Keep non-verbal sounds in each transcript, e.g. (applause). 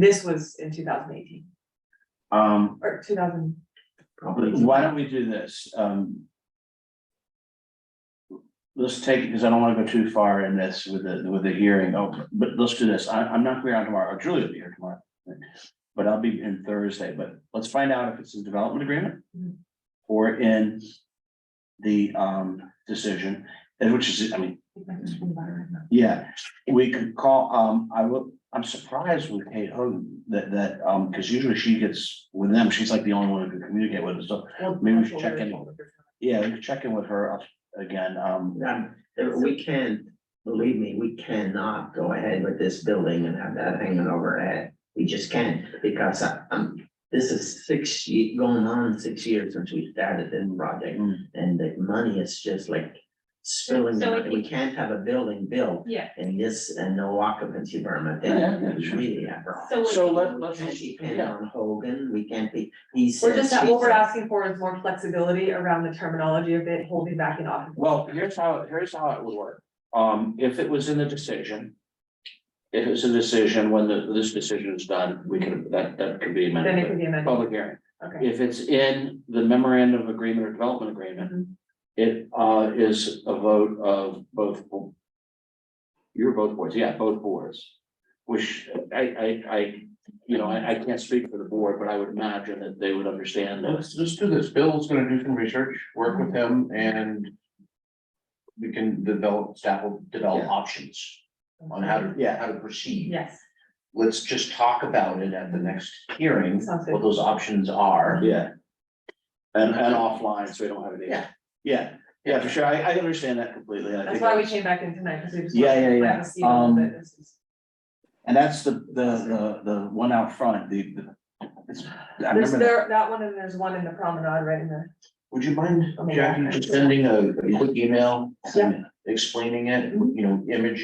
This was in two thousand eighteen Um, or two thousand, why don't we do this? Um. Let's take, because I don't want to go too far in this with the, with the hearing, oh, but let's do this. I, I'm not going out tomorrow. Julie will be here tomorrow. But I'll be in Thursday, but let's find out if it's a development agreement. Or in the, um, decision, and which is, I mean, Yeah, we could call, um, I will, I'm surprised with Kate Hogan that, that, um, because usually she gets with them, she's like the only one who can communicate with us, so. Maybe we should check in. Yeah, we could check in with her again, um, Um, there- we can, believe me, we cannot go ahead with this building and have that hanging overhead. We just can't, because I, um, this is six, ye- going on six years since we started this project, Mm. and the money is just like spilling, So out. it- we can't have a building built Yeah, in this, and no occupancy permit, Yeah, yeah, it's sure. really a problem. so. So it- let- We let's can't just- depend yeah. on Hogan, we can't be, he says. We're just, she what we're says. asking for is more flexibility around the terminology of it, holding back in office. well, here's how, here's how it would work. Um, if it was in the decision. If it's a decision, when the, this decision is done, we can, that, that could be Then it could amended, be but amended, public hearing. okay. If it's in the memorandum of agreement or development agreement, Mhm. It uh is a vote of both. bo- You're both boards, yeah, both boards, which I I I, you know, I I can't speak for the board, but I would imagine that they would understand that. Let's just do this. Bill's gonna do some research, work with him and. We can develop, staff will develop options on how to, yeah, how to proceed. Yes, Let's just talk about it at the next hearing, Sounds good. what those options are. Yeah. And and offline, so we don't have any. Yeah. Yeah, yeah, for sure. I I understand that completely. and I that's think why we came back in tonight, because we just. Yeah, wanted to yeah, yeah. plant the seed a little Um, bit. This is- And that's the the the the one out front, the the. it's- I There's remember that. there, that one, and there's one in the promenade right in the. Would you mind, Oh my Jackie, God. just (laughs) sending a a quick email? Yeah. Explaining it, Mm-hmm. you know, image,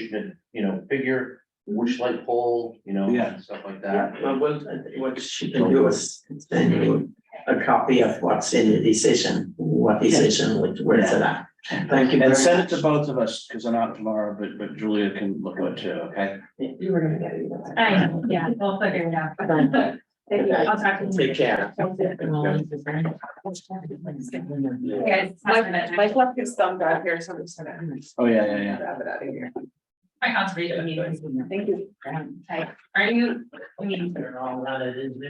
you know, figure, which light pole, you know, Yeah. stuff like that. Well, what, what she can do is send you a copy of what's in the decision, what decision, which, where's it at? Thank you very And send it much. to both of us, because I'm out tomorrow, but but Julia can look at it too, okay? You were gonna get it either way. I, know, yeah, we'll figure it out. Thank you. (laughs) I'll talk to you. Take care. Guys, have a minute. Mike left his thumb down here, so I'm just gonna. Oh, yeah, yeah, yeah. Grab it out of here. My conservation meeting. Thank you. Like, Are you, I mean,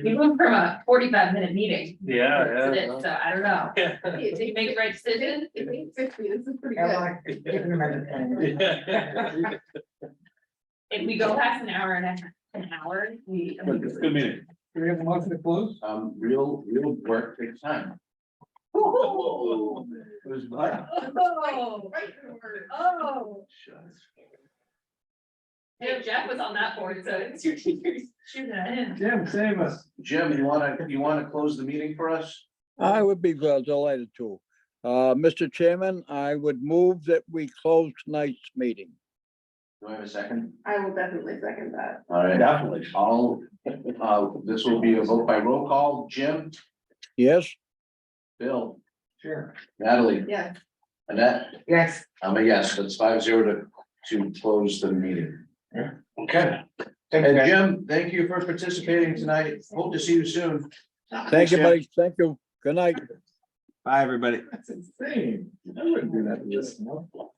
we moved from a forty-five minute meeting. Oh, Yeah, to yeah. this, So I don't know. Yeah. (laughs) Did you make the right decision? this is pretty (laughs) Yeah. If we go past an hour and a half, an hour, we. (laughs) Good meeting. Do we have a motion to close? Um, real, real work takes time. It was black. Oh, oh. Yeah, Jeff was on that board, so it's your, your, shoot at him. Jim, save us. Jim, you wanna, you wanna close the meeting for us? I would be uh, delighted to. Uh, Mr. Chairman, I would move that we close tonight's meeting. Do I have a second? I will definitely second that. All right, Definitely. I'll, uh, this will be a vote by roll call. Jim, Yes? Bill, Sure. Natalie, Yeah. Annette, Yes. I'm a yes, that's five zero to, to close the meeting. Okay. And Jim, thank you for participating tonight. Hope to see you soon. Thank you, Jim. buddy. Thank you. Good night. That's insane. I wouldn't do that to this. no.